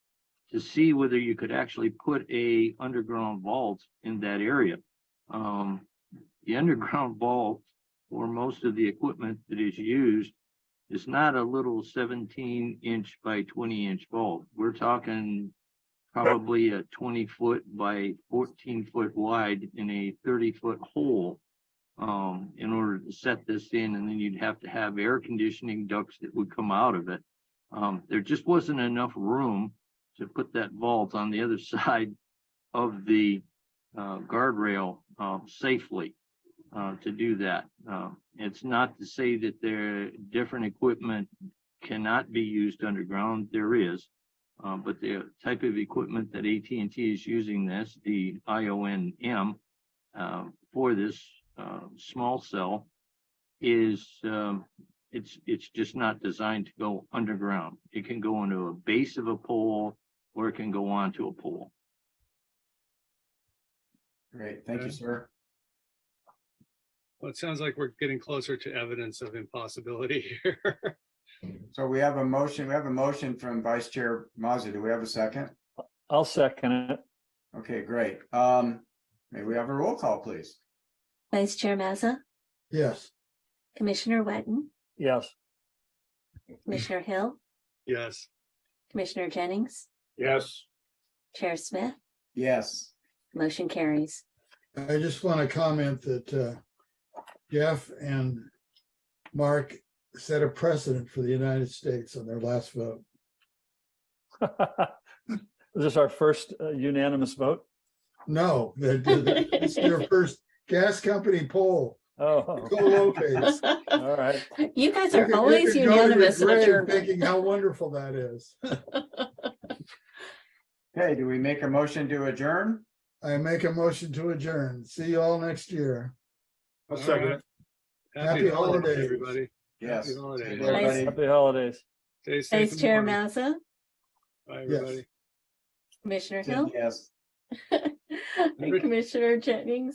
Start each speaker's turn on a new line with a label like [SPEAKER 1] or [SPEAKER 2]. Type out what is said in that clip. [SPEAKER 1] to see whether you could actually put a underground vault in that area. Um, the underground vault, or most of the equipment that is used, is not a little seventeen inch by twenty inch vault. We're talking probably a twenty foot by fourteen foot wide in a thirty foot hole um, in order to set this in, and then you'd have to have air conditioning ducts that would come out of it. Um, there just wasn't enough room to put that vault on the other side of the uh, guardrail uh, safely uh, to do that. Uh, it's not to say that there different equipment cannot be used underground. There is, uh, but the type of equipment that AT&T is using this, the IONM, uh, for this uh, small cell is um, it's it's just not designed to go underground. It can go into a base of a pole or it can go onto a pole.
[SPEAKER 2] Great, thank you,
[SPEAKER 3] Okay.
[SPEAKER 2] sir.
[SPEAKER 3] Well, it sounds like we're getting closer to evidence of impossibility here.
[SPEAKER 2] So we have a motion, we have a motion from Vice Chair Mazza. Do we have a second?
[SPEAKER 4] I'll second it.
[SPEAKER 2] Okay, great. Um, may we have a roll call, please?
[SPEAKER 5] Vice Chair Mazza,
[SPEAKER 6] yes,
[SPEAKER 5] Commissioner Wetton,
[SPEAKER 4] Yes.
[SPEAKER 5] Commissioner Hill,
[SPEAKER 3] Yes,
[SPEAKER 5] Commissioner Jennings,
[SPEAKER 7] yes,
[SPEAKER 5] Chair Smith,
[SPEAKER 2] Yes,
[SPEAKER 5] motion carries.
[SPEAKER 6] I just want to comment that uh, Jeff and Mark set a precedent for the United States on their last vote.
[SPEAKER 4] Is this our first uh, unanimous vote?
[SPEAKER 6] No, that that- it's their first gas company poll.
[SPEAKER 4] Oh,
[SPEAKER 6] Go Lopez.
[SPEAKER 4] all right.
[SPEAKER 5] You guys
[SPEAKER 6] You
[SPEAKER 5] are
[SPEAKER 6] could- you
[SPEAKER 5] always
[SPEAKER 6] could go to your
[SPEAKER 5] unanimous. in what
[SPEAKER 6] grave
[SPEAKER 5] you're-
[SPEAKER 6] Thinking how wonderful that is.
[SPEAKER 2] okay, do we make a motion to adjourn?
[SPEAKER 6] I make a motion to adjourn. See you all next year.
[SPEAKER 7] I'll
[SPEAKER 3] All
[SPEAKER 7] second it.
[SPEAKER 3] right. happy
[SPEAKER 6] Happy
[SPEAKER 3] holidays,
[SPEAKER 6] holidays.
[SPEAKER 3] everybody.
[SPEAKER 2] Yes.
[SPEAKER 3] Happy holidays.
[SPEAKER 2] Good day, everybody.
[SPEAKER 4] Happy holidays.
[SPEAKER 3] Stay safe.
[SPEAKER 5] Vice
[SPEAKER 3] and
[SPEAKER 5] Chair
[SPEAKER 3] warm.
[SPEAKER 5] Mazza,
[SPEAKER 3] Bye,
[SPEAKER 6] Yes.
[SPEAKER 3] everybody.
[SPEAKER 5] Commissioner Hill,
[SPEAKER 2] Yes.
[SPEAKER 5] Commissioner Jennings,